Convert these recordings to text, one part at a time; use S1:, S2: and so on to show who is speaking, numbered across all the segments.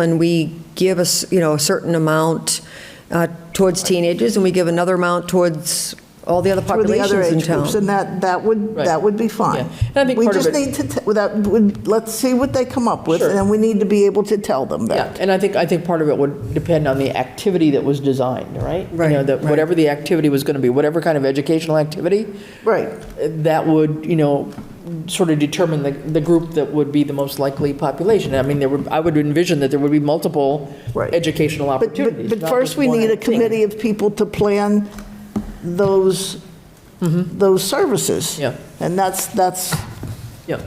S1: and we give us, you know, a certain amount uh, towards teenagers, and we give another amount towards all the other
S2: for the other
S1: populations in
S2: age groups,
S1: town.
S2: and that, that would,
S3: Right.
S2: that would be fine.
S3: Yeah. And I think part of
S2: We just
S3: it-
S2: need to, t- that, would- let's see what they come up with,
S3: Sure.
S2: and then we need to be able to tell them
S3: Yeah,
S2: that.
S3: and I think, I think part of it would depend on the activity that was designed, right? You know,
S1: Right,
S3: that
S1: right.
S3: whatever the activity was going to be, whatever kind of educational activity,
S2: Right,
S3: that would, you know, sort of determine the, the group that would be the most likely population. I mean, there would, I would envision that there would be multiple
S2: Right.
S3: educational
S2: but, but-
S3: opportunities.
S2: but
S3: not
S2: first
S3: just
S2: we
S3: one
S2: need a
S3: thing.
S2: committee of people to plan those, those services.
S3: Mm-hmm. Yeah.
S2: And that's, that's,
S3: Yeah,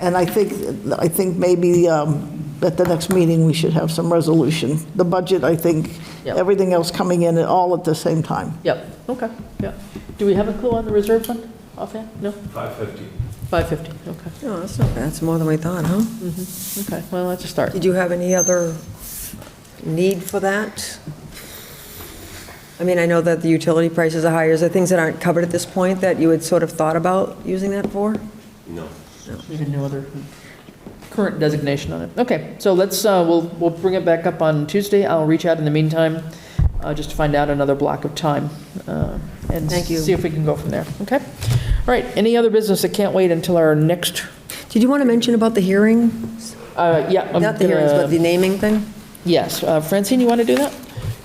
S2: and I think, I think maybe um, at the next meeting, we should have some resolution. The budget, I think,
S3: Yeah.
S2: everything else coming in all at the same time.
S3: yeah, okay, yeah. Do we have a clue on the reserve fund offhand? No?
S4: 550.
S3: 550, okay,
S1: No, Oh, that's not bad. That's more than we thought, huh?
S3: okay, well, that's a start.
S1: Did you have any other need for that? I mean, I know that the utility prices are higher. Is there things that aren't covered at this point that you had sort of thought about using that for?
S4: No.
S3: There's no other current designation on it. Okay, so let's, uh, we'll, we'll bring it back up on Tuesday. I'll reach out in the meantime, uh, just to find out another block of time. uh, And
S1: Thank you.
S3: see if we can go from there, okay? All right, any other business that can't wait until our next,
S1: Did you want to mention about the hearing?
S3: uh, yeah. I'm
S1: Not the hearings,
S3: gonna-
S1: but the naming thing?
S3: Yes, uh, Francine, you want to do that?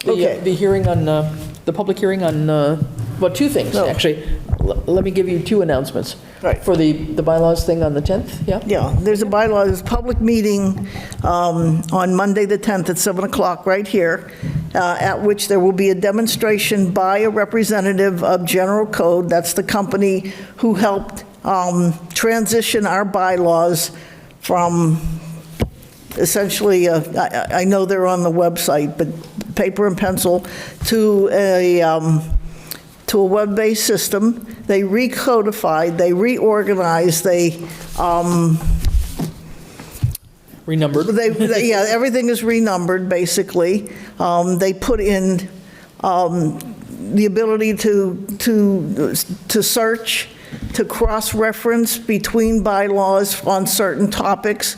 S3: The, uh,
S2: Okay.
S3: The hearing on, uh, the public hearing on, uh, well, two things,
S1: Oh.
S2: No.
S3: actually. L- Let me give you two announcements.
S2: Right.
S3: For the, the bylaws thing on the 10th, yeah?
S2: Yeah, there's a bylaw, there's a public meeting um, on Monday, the 10th, at 7 o'clock, right here, uh, at which there will be a demonstration by a representative of General Code, that's the company who helped um, transition our bylaws from essentially, uh, I I- I know they're on the website, but paper and pencil, to a, um, to a web-based system. They recodified, they reorganized, they um,
S3: Renumbered.
S2: They, they- yeah, everything is renumbered, basically. Um, They put in um, the ability to, to, to search, to cross-reference between bylaws on certain topics.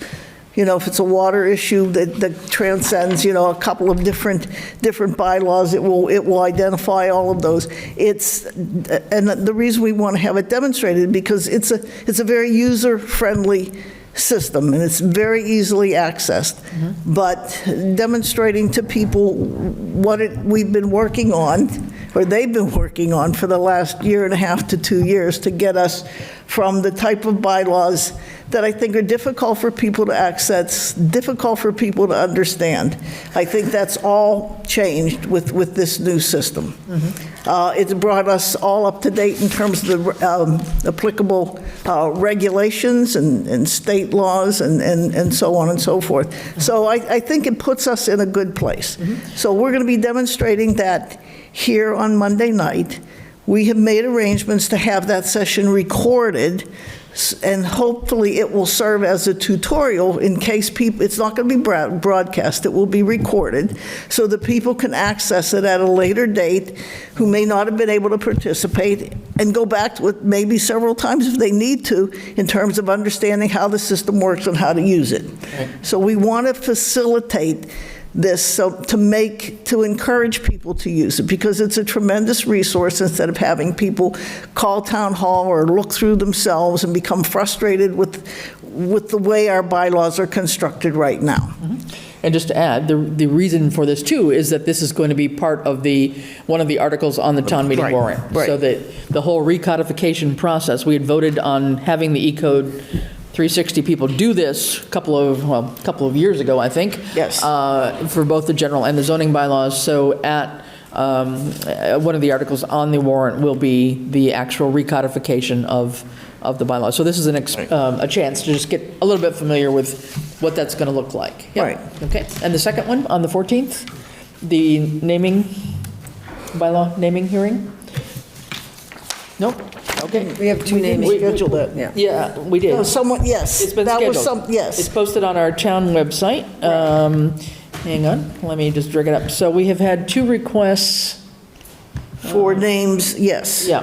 S2: You know, if it's a water issue that, that transcends, you know, a couple of different, different bylaws, it will, it will identify all of those. It's, and the reason we want to have it demonstrated, because it's a, it's a very user-friendly system, and it's very easily accessed. But demonstrating to people what it, we've been working on, or they've been working on for the last year and a half to two years, to get us from the type of bylaws that I think are difficult for people to access, difficult for people to understand. I think that's all changed with, with this new system. Uh, It's brought us all up to date in terms of the um, applicable uh, regulations and and state laws and- and and so on and so forth. So I I think it puts us in a good place. So we're going to be demonstrating that here on Monday night. We have made arrangements to have that session recorded, s- and hopefully it will serve as a tutorial in case people, it's not going to be bra- broadcast, it will be recorded, so that people can access it at a later date who may not have been able to participate, and go back to it maybe several times if they need to, in terms of understanding how the system works and how to use it. So we want to facilitate this, so to make, to encourage people to use it, because it's a tremendous resource instead of having people call town hall or look through themselves and become frustrated with, with the way our bylaws are constructed right now.
S3: Mm-hmm. And just to add, the, the reason for this too is that this is going to be part of the, one of the articles on the town meeting
S2: Right,
S3: warrant.
S2: right.
S3: So that the whole recodification process, we had voted on having the E E-code 360 people do this a couple of, well, a couple of years ago, I think.
S2: Yes.
S3: uh, For both the general and the zoning bylaws. So at, um, uh, one of the articles on the warrant will be the actual recodification of, of the bylaws. So this is an, ex- um, a chance to just get a little bit familiar with what that's going to look like. Yeah.
S2: Right.
S3: Okay, and the second one, on the 14th, the naming, bylaw naming hearing? Nope, okay.
S1: We have two naming.
S3: We- we-
S2: Schedule it.
S1: Yeah.
S3: Yeah, we did.
S2: No, Oh, someone, yes.
S3: It's been
S2: That was
S3: scheduled.
S2: some, yes.
S3: It's posted on our town website. Um, Hang on, let me just drag it up. So we have had two requests,
S2: Four names, yes.
S3: yeah.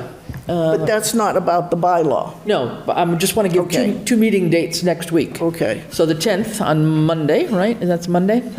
S3: Uh,
S2: But that's not about the bylaw.
S3: No, but I am just want to give
S2: Okay.
S3: two, two meeting dates next week.
S2: Okay.
S3: So the 10th on Monday, right? That's Monday,